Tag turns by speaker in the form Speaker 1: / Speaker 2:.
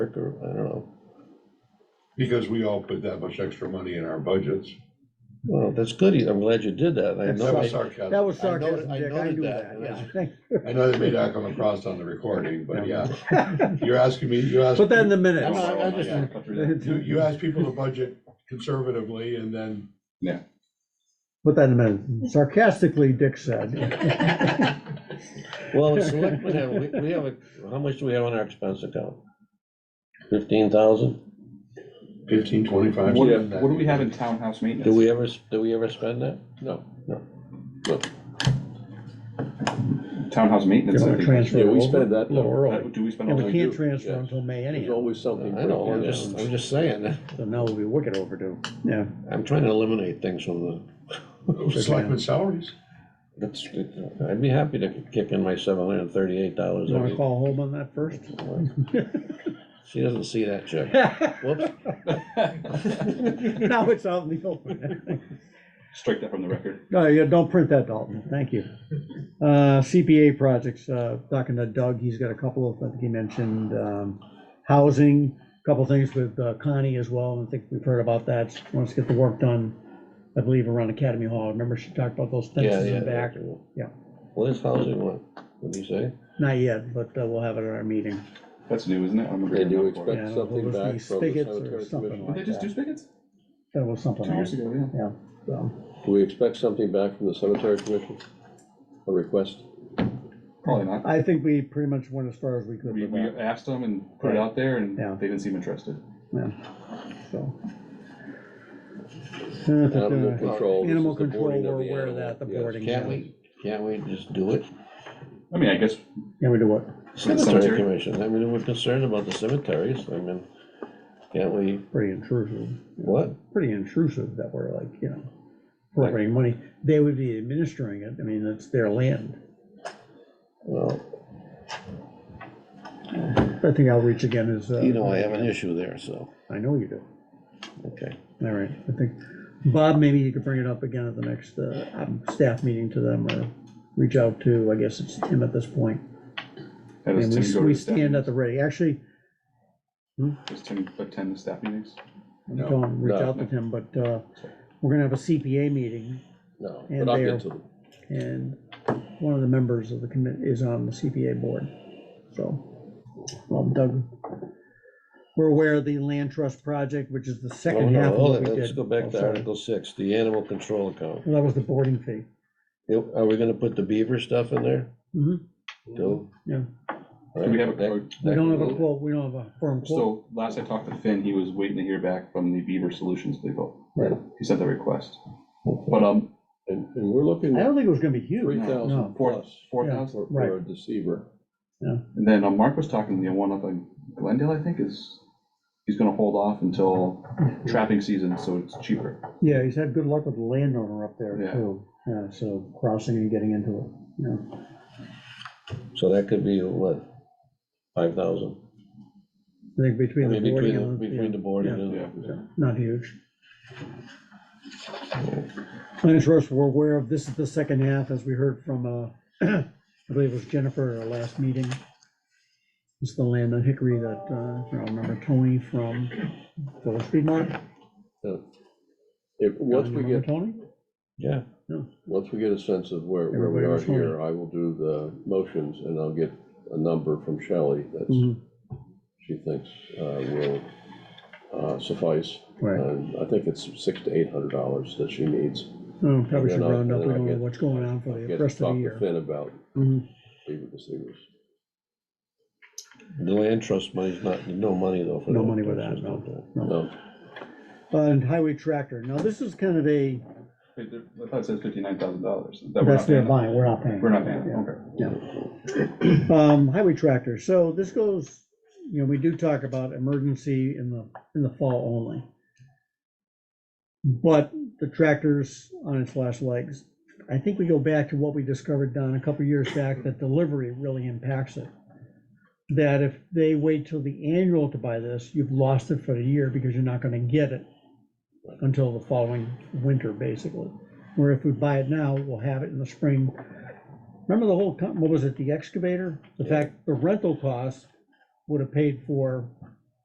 Speaker 1: Rick, or, I don't know.
Speaker 2: Because we all put that much extra money in our budgets.
Speaker 1: Well, that's good, I'm glad you did that, I
Speaker 2: That
Speaker 1: know,
Speaker 2: was
Speaker 1: I-
Speaker 2: sarcasm.
Speaker 3: That was
Speaker 1: I noted-
Speaker 3: sarcasm,
Speaker 1: I
Speaker 3: Dick, I
Speaker 1: noted
Speaker 3: knew
Speaker 1: that,
Speaker 3: that, yeah.
Speaker 2: I know that may not come across on the recording, but yeah, you're asking me, you asked.
Speaker 3: Put that in the
Speaker 1: I'm
Speaker 3: minutes.
Speaker 1: not- I just-
Speaker 2: Yeah. You,
Speaker 3: Put
Speaker 2: you ask people to budget conservatively and then,
Speaker 3: that in the minutes. Sarcastically, Dick said.
Speaker 1: well, the selectmen have, we, we have, a how much do we have on our expense account? Fifteen thousand?
Speaker 2: fifteen, twenty-five.
Speaker 4: What,
Speaker 2: something like
Speaker 4: what do we
Speaker 2: that.
Speaker 4: have in townhouse maintenance?
Speaker 1: Do we ever, s- do we ever spend that? No, no.
Speaker 4: Townhouse maintenance, I
Speaker 3: Gonna
Speaker 4: think.
Speaker 3: transfer
Speaker 5: Yeah, we
Speaker 3: over.
Speaker 5: spend that
Speaker 3: No,
Speaker 5: little
Speaker 4: Uh,
Speaker 5: early.
Speaker 4: Do we spend
Speaker 3: And
Speaker 4: all
Speaker 3: we
Speaker 4: we
Speaker 3: can't
Speaker 4: do?
Speaker 3: transfer
Speaker 5: yes.
Speaker 3: until May
Speaker 5: There's
Speaker 3: anyhow,
Speaker 5: always something.
Speaker 1: I know, I'm
Speaker 5: breaking
Speaker 1: just,
Speaker 5: down.
Speaker 1: I'm just saying,
Speaker 3: so now we'll be wicked overdue. Yeah,
Speaker 1: I'm trying to eliminate things from the,
Speaker 2: Selectmen salaries.
Speaker 1: that's, I'd be happy to kick in my seven hundred and thirty-eight dollars.
Speaker 3: you wanna call home on that first?
Speaker 1: She doesn't see that check, whoops.
Speaker 3: Now it's out in the open.
Speaker 4: Strike that from the record.
Speaker 3: No, yeah, don't print that, Dalton,
Speaker 5: Mm-hmm.
Speaker 3: thank you. Uh, CPA projects, uh, talking to Doug, he's got a couple of, I think he mentioned, um, housing, a couple things with uh, Connie as well, and I think we've heard about that, She wants to get the work done, I believe around Academy Hall, remember she talked about those
Speaker 1: Yeah,
Speaker 3: fences
Speaker 1: yeah.
Speaker 3: in back? yeah.
Speaker 1: Well, this housing one, what do you say?
Speaker 3: Not yet, but uh, we'll have it at our meeting.
Speaker 4: That's new, isn't it? I remember
Speaker 5: They do
Speaker 4: hearing that before.
Speaker 5: expect
Speaker 3: Yeah, well,
Speaker 5: something
Speaker 3: there's
Speaker 5: back
Speaker 3: these
Speaker 5: from the
Speaker 3: spigots or
Speaker 5: cemetery
Speaker 3: something
Speaker 5: commission.
Speaker 3: like-
Speaker 4: Did they just do spigots?
Speaker 3: That was something
Speaker 4: Two years
Speaker 3: else,
Speaker 4: ago, yeah.
Speaker 3: yeah, so,
Speaker 5: Do we expect something back from the cemetery commission? A request?
Speaker 4: Probably not.
Speaker 3: I think we pretty much went as far as we could
Speaker 4: We,
Speaker 3: with
Speaker 4: we
Speaker 3: that,
Speaker 4: asked them and put it out there and
Speaker 3: Yeah.
Speaker 4: they didn't seem interested.
Speaker 3: so.
Speaker 5: Animal control. this
Speaker 3: Animal
Speaker 5: is the
Speaker 3: control,
Speaker 5: boarding of
Speaker 3: we're
Speaker 5: the
Speaker 3: aware of
Speaker 5: animal.
Speaker 3: that, the
Speaker 5: Yes.
Speaker 3: boarding.
Speaker 1: Can't we, can't we just do it?
Speaker 4: I mean, I guess
Speaker 3: Can we do what?
Speaker 1: Cemetery
Speaker 4: Cemetery.
Speaker 1: commission, I mean, we're concerned about the cemeteries, I mean, can't we,
Speaker 3: Pretty intrusive,
Speaker 1: what?
Speaker 3: pretty intrusive that we're like, you know, appropriating money. They would be administering it, I mean, it's their land.
Speaker 1: Well,
Speaker 3: I think outreach again is. uh,
Speaker 1: you know, I have an issue there, so,
Speaker 3: I know you do,
Speaker 1: okay.
Speaker 3: all right, I think, Bob, maybe you could bring it up again at the next, uh, um, staff meeting to them or reach out to, I guess it's Tim at this point.
Speaker 4: that is
Speaker 3: And
Speaker 4: Tim
Speaker 3: we,
Speaker 4: go to
Speaker 3: we
Speaker 4: the staff
Speaker 3: stand at
Speaker 4: meetings.
Speaker 3: the ready, actually,
Speaker 4: Does Tim attend the staff meetings?
Speaker 3: I'm
Speaker 2: No,
Speaker 3: telling, reach
Speaker 5: no.
Speaker 3: out to Tim, but, uh, we're gonna have a CPA meeting
Speaker 5: No,
Speaker 3: And
Speaker 5: but I'll
Speaker 3: there.
Speaker 5: get to them.
Speaker 3: and one of the members of the commit is on the CPA board. So, well, Doug, we're aware of the land trust project, which is the
Speaker 1: Well,
Speaker 3: second
Speaker 1: Oh, no,
Speaker 3: half of
Speaker 1: hold
Speaker 3: what
Speaker 1: it,
Speaker 3: we did.
Speaker 1: Let's go
Speaker 3: Oh,
Speaker 1: back to
Speaker 3: sorry.
Speaker 1: Article six, the animal control account.
Speaker 3: Well, That was the boarding fee.
Speaker 1: Yep, Are we gonna put the beaver stuff in there?
Speaker 3: Mhm.
Speaker 5: Mm-hmm.
Speaker 1: Too?
Speaker 3: Yeah.
Speaker 4: Do we have a quote?
Speaker 3: We don't have a quote, we don't have a firm quote.
Speaker 4: So last I talked to Finn, he was waiting to hear back from the Beaver Solutions people.
Speaker 3: Right.
Speaker 4: He sent the request. But, um,
Speaker 5: And, and we're looking
Speaker 3: I
Speaker 5: at
Speaker 3: don't think it was gonna be huge.
Speaker 5: three
Speaker 3: No.
Speaker 5: thousand
Speaker 4: four,
Speaker 5: plus
Speaker 4: four
Speaker 3: Yeah.
Speaker 4: thousand?
Speaker 5: for,
Speaker 3: Right.
Speaker 5: for a deceiver.
Speaker 4: And then uh, Mark was talking, the one up in Glendale, I think, is, he's gonna hold off until trapping season, so it's cheaper.
Speaker 3: Yeah, he's had good luck with the landowner up there
Speaker 4: Yeah.
Speaker 3: too, Yeah, so crossing and getting into it, you know.
Speaker 1: So that could be, what, five thousand?
Speaker 3: I think
Speaker 1: I
Speaker 3: between the
Speaker 1: mean,
Speaker 3: boarding
Speaker 1: between, the-
Speaker 3: and. the-
Speaker 1: between the board and
Speaker 4: Yeah.
Speaker 1: the.
Speaker 3: yeah, Not huge. Land Trust, we're aware of, this is the second half, as we heard from, uh, I believe it was Jennifer at our last meeting. It's the land on Hickory that, uh, if I remember Tony from Village Street Mart.
Speaker 5: If, once
Speaker 3: You
Speaker 5: we
Speaker 3: remember
Speaker 5: get,
Speaker 3: Tony?
Speaker 1: Yeah,
Speaker 5: once we get a sense of where, where we
Speaker 3: Everybody
Speaker 5: are
Speaker 3: was wondering.
Speaker 5: here, I will do the motions and I'll get a number from Shelley that
Speaker 3: Mhm,
Speaker 5: she thinks uh, will uh, suffice.
Speaker 3: Right,
Speaker 5: And I think it's six to eight hundred dollars that she needs.
Speaker 3: Oh, probably should
Speaker 5: then I'll-
Speaker 3: round up,
Speaker 5: then
Speaker 3: we
Speaker 5: I'll
Speaker 3: don't know
Speaker 5: get-
Speaker 3: what's going on for the
Speaker 5: Get
Speaker 3: rest of
Speaker 5: talk
Speaker 3: the
Speaker 5: to
Speaker 3: year.
Speaker 5: Finn about
Speaker 3: Mhm,
Speaker 5: beaver deceivers.
Speaker 1: the land trust money's not, no money though for.
Speaker 3: No
Speaker 1: that.
Speaker 3: money with
Speaker 1: That's
Speaker 3: that,
Speaker 1: just-
Speaker 3: no.
Speaker 5: No,
Speaker 3: Uh, And Highway Tractor, now this is kind of a,
Speaker 4: Wait, there- I thought it said fifty-nine thousand dollars.
Speaker 3: that's their buying, we're not paying.
Speaker 4: We're not paying,
Speaker 3: Yeah.
Speaker 4: okay.
Speaker 3: Um, highway tractor, so this goes, you know, we do talk about emergency in the, in the fall only. But the tractor's on its last legs. I think we go back to what we discovered, Don, a couple years back, that delivery really impacts it. That if they wait till the annual to buy this, you've lost it for the year because you're not gonna get it until the following winter, basically. Where if we buy it now, we'll have it in the spring. Remember the whole, co- what was it, the excavator? The fact, the rental cost would have paid for